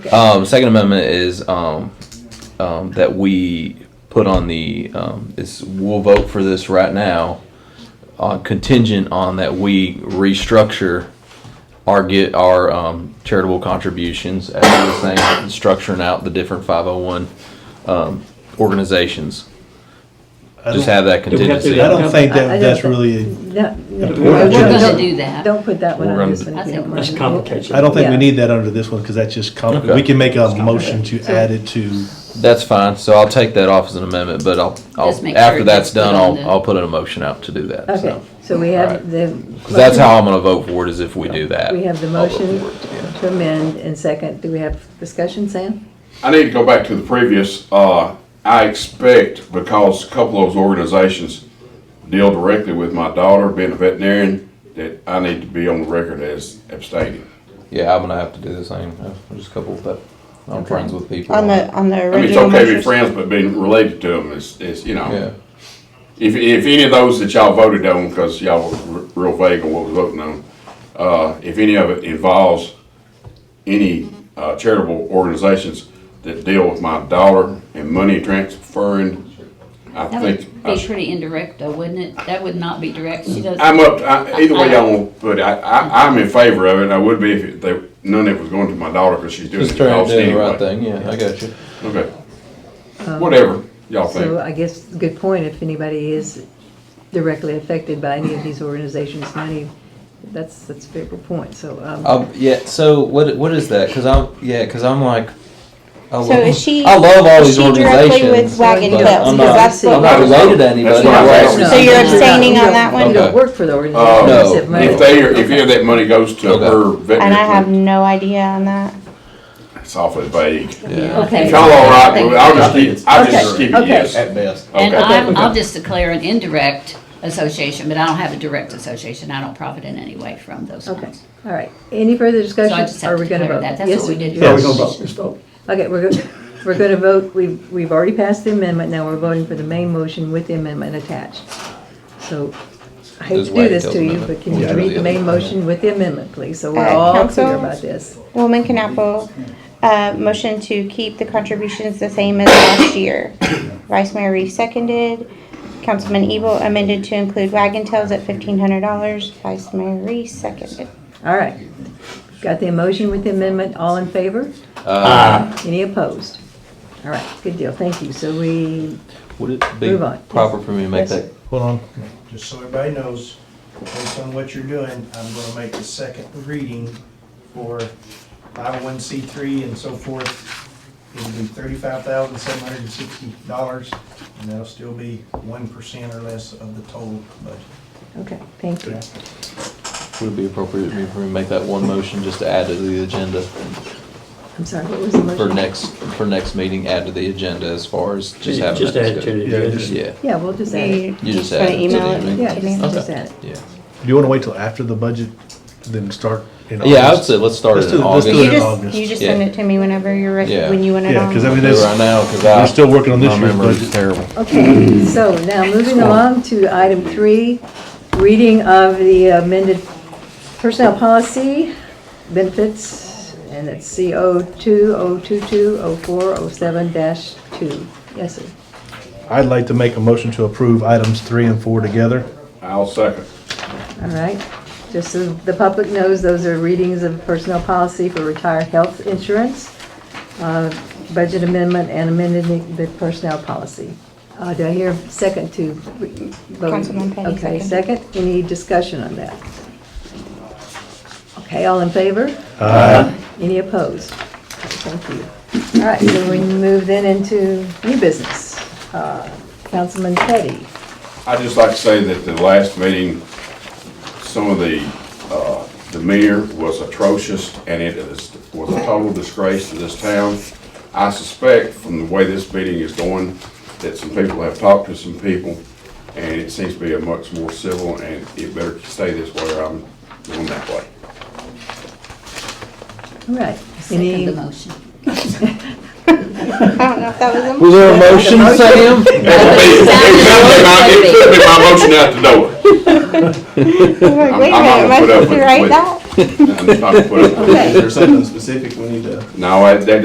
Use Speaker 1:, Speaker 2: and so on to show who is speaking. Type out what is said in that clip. Speaker 1: Um, second amendment is um, um, that we put on the um, is we'll vote for this right now, uh, contingent on that we restructure our get our um, charitable contributions as the same structuring out the different five hundred one um, organizations.
Speaker 2: I
Speaker 1: Just
Speaker 2: don't-
Speaker 1: have that
Speaker 3: we have to do
Speaker 1: contingency.
Speaker 2: I don't think
Speaker 4: I- I
Speaker 2: that,
Speaker 4: don't
Speaker 2: that's
Speaker 4: think-
Speaker 2: really,
Speaker 4: No, no,
Speaker 3: We're
Speaker 4: no,
Speaker 3: gonna
Speaker 4: don't-
Speaker 5: do that.
Speaker 4: Don't put that one
Speaker 1: We're
Speaker 4: on
Speaker 1: gonna-
Speaker 4: this one.
Speaker 5: I
Speaker 4: if you
Speaker 5: think
Speaker 4: don't
Speaker 5: we're-
Speaker 4: mind.
Speaker 3: That's complicated.
Speaker 2: I don't think we
Speaker 4: Yeah.
Speaker 2: need that under this one, because that's just, com-
Speaker 1: Okay.
Speaker 2: we can make a motion to
Speaker 4: So-
Speaker 2: add it to,
Speaker 1: That's fine. So I'll take that off as an amendment, but I'll,
Speaker 5: Just make
Speaker 1: I'll
Speaker 5: sure
Speaker 1: after
Speaker 5: it
Speaker 1: that's
Speaker 5: gets put
Speaker 1: done,
Speaker 5: on
Speaker 1: I'll
Speaker 5: the-
Speaker 1: I'll put an emotion out to do that.
Speaker 4: Okay,
Speaker 1: So.
Speaker 4: so we
Speaker 1: Alright.
Speaker 4: have the.
Speaker 1: 'Cause that's how I'm going to vote for it is if we do that.
Speaker 4: We have the
Speaker 1: I'll vote
Speaker 4: motion
Speaker 1: for it, yeah.
Speaker 4: to amend and second. Do we have discussion, Sam?
Speaker 6: I need to go back to the previous, uh, I expect, because a couple of those organizations deal directly with my daughter being a veterinarian, that I need to be on the record as abstaining.
Speaker 1: Yeah, I'm gonna have to do the same. I'm just a couple of that. I'm
Speaker 4: Okay.
Speaker 1: friends with people.
Speaker 7: On the, on the
Speaker 6: I mean, it's
Speaker 7: original
Speaker 6: okay to be
Speaker 7: motion.
Speaker 6: friends, but being related to them is, is, you
Speaker 1: Yeah.
Speaker 6: know. If, if any of those that y'all voted on, because y'all were r- real vague on what was voting on, uh, if any of it involves any uh, charitable organizations that deal with my daughter and money transferring, I
Speaker 5: That
Speaker 6: think.
Speaker 5: would
Speaker 6: I
Speaker 5: be pretty indirect though, wouldn't it? That would not be direct. She does.
Speaker 6: I'm up, I, either way y'all want, but I, I, I'm in favor of it, I would be if they, none of it was going to my daughter, because she's doing
Speaker 1: Just
Speaker 6: it
Speaker 1: trying to
Speaker 6: anyway.
Speaker 1: do the right thing. Yeah, I got you.
Speaker 6: Okay. Whatever, y'all
Speaker 4: Um, So
Speaker 6: think.
Speaker 4: I guess, good point, if anybody is directly affected by any of these organizations' money, that's, that's a fair point, so. um,
Speaker 1: Um, yeah. So what what is that? Cause I'm yeah. Cause I'm like. I
Speaker 7: So
Speaker 1: love,
Speaker 7: is she-
Speaker 1: I love all
Speaker 7: is
Speaker 1: these
Speaker 7: she directly with
Speaker 1: organizations.
Speaker 7: Wagon
Speaker 1: but
Speaker 4: Club?
Speaker 1: I'm
Speaker 4: Because
Speaker 1: not,
Speaker 4: that's what
Speaker 1: I'm not
Speaker 6: we're-
Speaker 1: related to anybody.
Speaker 6: That's what I'm
Speaker 1: right?
Speaker 6: asking.
Speaker 7: So you're
Speaker 4: No, no, no,
Speaker 7: abstaining
Speaker 4: you
Speaker 7: on
Speaker 4: don't-
Speaker 7: that one?
Speaker 4: You don't
Speaker 1: Okay.
Speaker 4: work for the organization.
Speaker 6: Uh,
Speaker 4: you have money.
Speaker 6: If they, are if any of that money goes to
Speaker 1: Okay.
Speaker 6: her veterinary.
Speaker 7: And I have no idea on that.
Speaker 6: It's awfully vague.
Speaker 1: Yeah.
Speaker 5: Okay.
Speaker 6: If y'all all right,
Speaker 5: Thank
Speaker 6: well,
Speaker 5: you.
Speaker 6: I'll just keep, I'll just
Speaker 4: Okay.
Speaker 6: keep
Speaker 4: Okay.
Speaker 6: it yes.
Speaker 1: At best.
Speaker 5: And
Speaker 6: Okay.
Speaker 5: I'm, I'll just declare an indirect association, but I don't have a direct association. I don't profit in any way from those
Speaker 4: Okay,
Speaker 5: funds.
Speaker 4: all right. Any further
Speaker 5: So I
Speaker 4: discussion?
Speaker 5: just
Speaker 4: Are
Speaker 5: have to
Speaker 4: we gonna
Speaker 5: declare
Speaker 4: vote?
Speaker 5: that. That's
Speaker 4: Yes,
Speaker 5: what we did.
Speaker 2: Yeah, we're gonna
Speaker 3: vote. Just vote.
Speaker 4: Okay, we're, go- we're going to vote, we've, we've already passed the amendment, now we're voting for the main motion with the amendment attached. So, I hate
Speaker 1: Just
Speaker 4: to
Speaker 1: wait
Speaker 4: do this
Speaker 1: till
Speaker 4: to
Speaker 1: the
Speaker 4: you,
Speaker 1: amendment.
Speaker 4: but can you
Speaker 1: Yeah.
Speaker 4: read the main motion with the amendment, please? So we're
Speaker 7: Uh,
Speaker 4: all clear
Speaker 7: council?
Speaker 4: about this.
Speaker 7: Woolman Knappel, uh, motion to keep the contributions the same as last year. Vice Mayor Reese seconded. Councilman Evil amended to include wagon tails at fifteen hundred dollars. Vice Mayor Reese seconded.
Speaker 4: All right. Got the motion with the amendment, all in favor?
Speaker 6: Uh,
Speaker 1: Uh,
Speaker 3: Ah,
Speaker 4: Any opposed? All right, good deal, thank you. So we,
Speaker 1: Would it be
Speaker 4: Move on.
Speaker 1: proper for me to make that?
Speaker 2: hold on.
Speaker 8: Just so everybody knows, based on what you're doing, I'm gonna make the second reading for 501c3 and so forth. It'll be $35,760, and that'll still be 1% or less of the total budget.
Speaker 4: okay, thank you.
Speaker 1: Would it be appropriate for me to make that one motion just to add to the agenda
Speaker 4: I'm sorry, what was the motion?
Speaker 1: for next for next meeting? Add to the agenda as far as just having
Speaker 3: just
Speaker 1: that
Speaker 3: add to
Speaker 1: discussion.
Speaker 3: the
Speaker 2: Yeah,
Speaker 3: agenda.
Speaker 2: just-
Speaker 1: Yeah.
Speaker 4: Yeah, we'll just add it.
Speaker 1: You just
Speaker 7: Gonna
Speaker 1: add it to
Speaker 7: email
Speaker 1: the
Speaker 7: it
Speaker 1: email.
Speaker 4: Yeah, just,
Speaker 7: Okay.
Speaker 4: just add it.
Speaker 1: Yeah.
Speaker 2: Do you wanna wait till after the budget, then start in August?
Speaker 1: Yeah, I would say let's start
Speaker 2: Let's
Speaker 1: it
Speaker 2: do
Speaker 1: in
Speaker 2: it- let's
Speaker 1: August.
Speaker 2: do it
Speaker 7: You
Speaker 2: in
Speaker 7: just,
Speaker 2: August.
Speaker 7: you just send
Speaker 1: Yeah.
Speaker 7: it to me whenever you're ready,
Speaker 1: Yeah.
Speaker 7: when you want it
Speaker 2: Yeah,
Speaker 7: on.
Speaker 2: cause I mean,
Speaker 1: Do it
Speaker 2: that's,
Speaker 1: right now, 'cause I-
Speaker 2: we're still working on this
Speaker 1: my
Speaker 2: year's
Speaker 1: memory's
Speaker 2: budget.
Speaker 1: terrible.
Speaker 4: Okay, so now moving along to item three, reading of the amended personnel policy, benefits, and it's CO two, oh two two, oh four, oh seven dash two. Yes, sir.
Speaker 2: I'd like to make a motion to approve items three and four together.
Speaker 6: I'll second.
Speaker 4: All right. Just so the public knows, those are readings of personnel policy for retired health insurance, uh, budget amendment, and amended the personnel policy. Uh, Do I hear a second to re- vote?
Speaker 7: Councilman Penny,
Speaker 4: Okay,
Speaker 7: second.
Speaker 4: second. Any discussion on that? Okay, all in favor?
Speaker 2: Uh,
Speaker 4: Any opposed? Okay, Thank you. All right, so we move then into new business. Uh, Councilman Petty.
Speaker 6: I'd just like to say that the last meeting, some of the, uh, demeanor was atrocious, and it is, was a total disgrace to this town. I suspect from the way this meeting is going, that some people have talked to some people, and it seems to be a much more civil, and it better stay this way, or I'm going that way.
Speaker 4: All right.
Speaker 5: Second
Speaker 4: Any
Speaker 5: the motion.
Speaker 7: I don't know if that was a
Speaker 1: Was there a motion, Sam?
Speaker 6: It took me my motion out the door.
Speaker 7: I'm like, wait a
Speaker 6: I'm not
Speaker 7: minute, am I
Speaker 6: gonna put up
Speaker 7: supposed to
Speaker 6: with-
Speaker 7: write
Speaker 6: with-
Speaker 7: that?
Speaker 6: I'm trying to put it-
Speaker 9: Okay.
Speaker 2: Is there something specific we need to?
Speaker 6: No, I- that